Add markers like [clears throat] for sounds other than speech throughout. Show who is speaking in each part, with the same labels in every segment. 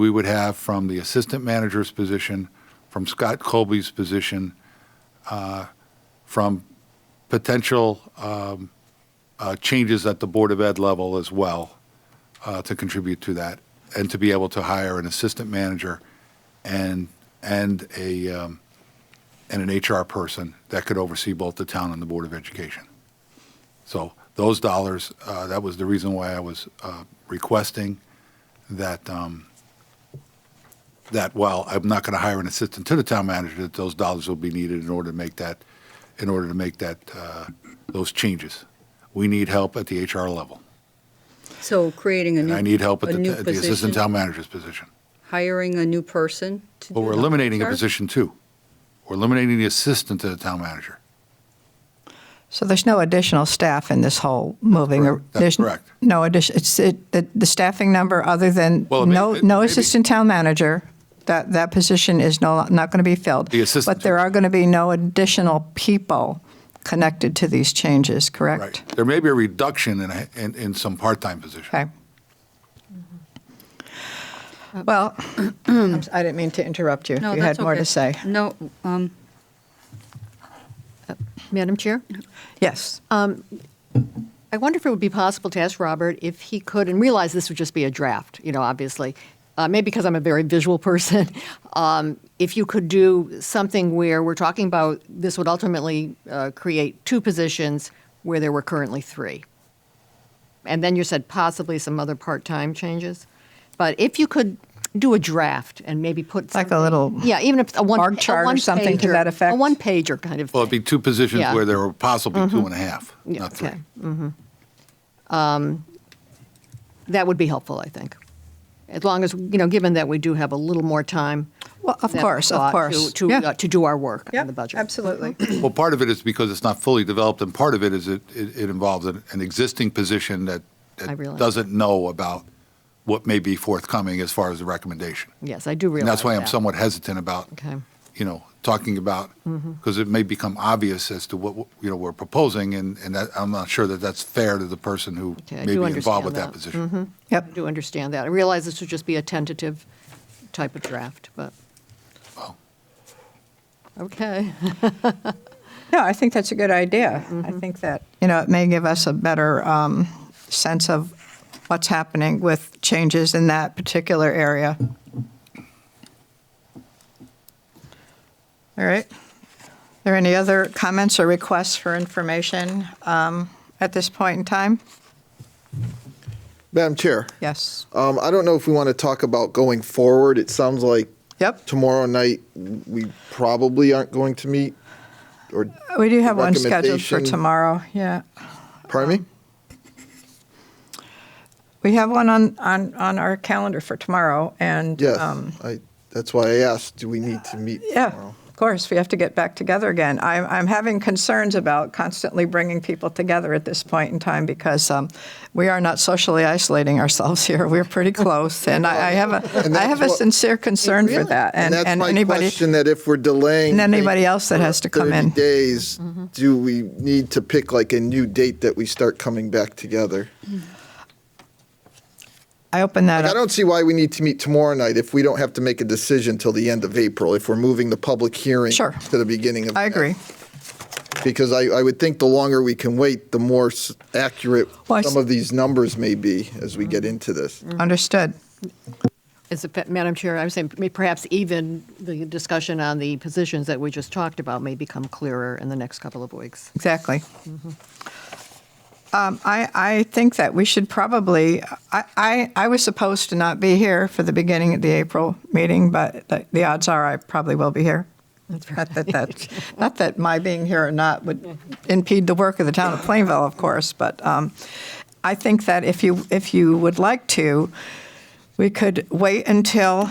Speaker 1: we would have from the assistant manager's position, from Scott Colby's position, uh, from potential um, uh, changes at the Board of Ed level as well uh, to contribute to that, and to be able to hire an assistant manager and, and a, um, and an HR person that could oversee both the town and the Board of Education. So those dollars, uh, that was the reason why I was uh, requesting that, um, that while I'm not going to hire an assistant to the town manager, that those dollars will be needed in order to make that, in order to make that, uh, those changes. We need help at the HR level.
Speaker 2: So creating a
Speaker 1: And
Speaker 2: new.
Speaker 1: I need help at
Speaker 2: a
Speaker 1: the
Speaker 2: new
Speaker 1: at the
Speaker 2: position,
Speaker 1: assistant town manager's position.
Speaker 2: Hiring a new person to
Speaker 1: Well,
Speaker 2: do
Speaker 1: we're
Speaker 2: that.
Speaker 1: eliminating a
Speaker 2: Sorry?
Speaker 1: position too. We're eliminating the assistant to the town manager.
Speaker 3: So there's no additional staff in this whole moving? or-
Speaker 1: correct. That's
Speaker 3: there's n-
Speaker 1: correct.
Speaker 3: No addition, it's, it, the the staffing number, other than,
Speaker 1: Well, it may-
Speaker 3: no,
Speaker 1: it-
Speaker 3: no
Speaker 1: maybe.
Speaker 3: assistant town manager, that, that position is no, not going to be filled.
Speaker 1: The assistant
Speaker 3: But there
Speaker 1: town-
Speaker 3: are going to be no additional people connected to these changes, correct?
Speaker 1: Right. There may be a reduction in, a- in, in some part-time positions.
Speaker 3: Okay.
Speaker 4: Uh, [clears throat]
Speaker 3: Well, I'm s- I didn't mean to interrupt you.
Speaker 2: No,
Speaker 3: You had
Speaker 2: that's
Speaker 3: more
Speaker 2: okay.
Speaker 3: to say.
Speaker 2: No, um,
Speaker 4: Madam Chair,
Speaker 3: Yes.
Speaker 4: Uh, I wonder if it would be possible to ask Robert if he could, and realize this would just be a draft, you know, obviously, uh, maybe because I'm a very visual [laughs] person, um, if you could do something where we're talking about this would ultimately uh, create two positions where there were currently three. And then you said possibly some other part time changes. But if you could do a draft and maybe put
Speaker 3: Like a
Speaker 4: something-
Speaker 3: little
Speaker 4: yeah, even if it's a one
Speaker 3: bar
Speaker 4: a
Speaker 3: chart or something to
Speaker 4: one-pager-
Speaker 3: that effect?
Speaker 4: a one pager kind of
Speaker 1: Well,
Speaker 4: thing.
Speaker 1: it'd be two positions
Speaker 4: Yeah.
Speaker 1: where there were possibly two and a half,
Speaker 4: Yeah,
Speaker 1: not three.
Speaker 4: okay. Mhm. Um, That would be helpful, I think. As long as, you know, given that we do have a little more time.
Speaker 3: Well, of
Speaker 4: than
Speaker 3: course, of
Speaker 4: thought to-
Speaker 3: course.
Speaker 4: To,
Speaker 3: Yeah.
Speaker 4: uh, to do our work on
Speaker 3: Yep,
Speaker 4: the budget. Mm-hmm.
Speaker 3: Absolutely.
Speaker 1: Well, part of it is because it's not fully developed, and part of it is it, it it involves an, an existing position that,
Speaker 4: I
Speaker 1: that
Speaker 4: realize.
Speaker 1: doesn't know about what may be forthcoming as far as the recommendation.
Speaker 4: Yes, I do realize
Speaker 1: And that's why I'm
Speaker 4: that.
Speaker 1: somewhat hesitant about,
Speaker 4: Okay. Mm-hmm.
Speaker 1: you know, talking about, because it may become obvious as to what, you know, we're proposing, and, and that, I'm not sure that that's fair to the person who
Speaker 4: Okay, I
Speaker 1: may
Speaker 4: do
Speaker 1: be involved
Speaker 4: understand
Speaker 1: with that
Speaker 4: that. Mm-hmm.
Speaker 1: position.
Speaker 4: I
Speaker 3: Yep.
Speaker 4: do understand that. I realize this would just be a tentative type of draft, but. Okay. [laughs]
Speaker 3: No, I think that's a good idea. I think that, you know, it may give us a better um, sense of what's happening with changes in that particular area. All right. Are there any other comments or requests for information um, at this point in time?
Speaker 5: Madam Chair,
Speaker 3: Yes.
Speaker 5: um, I don't know if we want to talk about going forward. It sounds like
Speaker 3: Yep.
Speaker 5: tomorrow night we probably aren't going to meet. Or
Speaker 3: We do have one scheduled for
Speaker 5: Recommendation.
Speaker 3: tomorrow, yeah.
Speaker 5: pardon
Speaker 3: Um,
Speaker 5: me.
Speaker 3: We have one on, on, on our calendar for tomorrow, and.
Speaker 5: Yes,
Speaker 3: um,
Speaker 5: I, that's why I asked. Do we need to meet
Speaker 3: Yeah,
Speaker 5: tomorrow?
Speaker 3: of course, we have to get back together again. I'm, I'm having concerns about constantly bringing people together at this point in time because um, we are not socially isolating ourselves here. We're pretty close, and I, I have
Speaker 5: [laughs] And
Speaker 3: a, I have a
Speaker 5: that's what-
Speaker 3: sincern concern for that.
Speaker 5: And, that's my
Speaker 3: anybody,
Speaker 5: question: that if we're
Speaker 3: and
Speaker 5: delaying things
Speaker 3: anybody else that
Speaker 5: for
Speaker 3: has to come
Speaker 5: 30
Speaker 3: in.
Speaker 5: days, do we need to pick like a new date that we start coming back together?
Speaker 3: Mm-hmm. I open that
Speaker 5: Like, I
Speaker 3: up.
Speaker 5: don't see why we need to meet tomorrow night if we don't have to make a decision till the end of April. If we're moving the public hearing
Speaker 3: Sure.
Speaker 5: to the beginning of
Speaker 3: I agree.
Speaker 5: because I, I would think the longer we can wait, the more s- accurate
Speaker 3: Well, I
Speaker 5: some
Speaker 3: s-
Speaker 5: of these numbers may be as we get into this.
Speaker 3: Understood.
Speaker 4: As a, fa- Madam Chair, I was saying may- perhaps even the discussion on the positions that we just talked about may become clearer in the next couple of weeks.
Speaker 3: Exactly. Um, I, I think that we should probably, I, I, I was supposed to not be here for the beginning of the April meeting, but the, the odds are I probably will be here. Not that, that, not that my being here or not would impede the work of the town of Plainville, of course, but um, I think that if you, if you would like to, we could wait until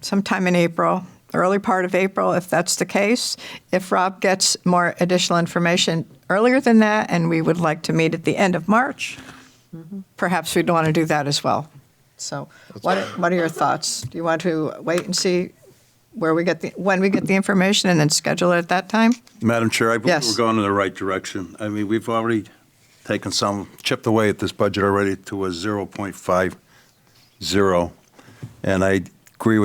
Speaker 3: sometime in April, early part of April, if that's the case. If Rob gets more additional information earlier than that, and we would like to meet at the end of March, perhaps we'd want to do that as well. So what, are- what are your thoughts? Do you want to wait and see where we get the, when we get the information and then schedule it at that time?
Speaker 6: Madam Chair, I believe
Speaker 3: Yes.
Speaker 6: we're going in the right direction. I mean, we've already taken some, chipped away at this budget already to a 0.50. And I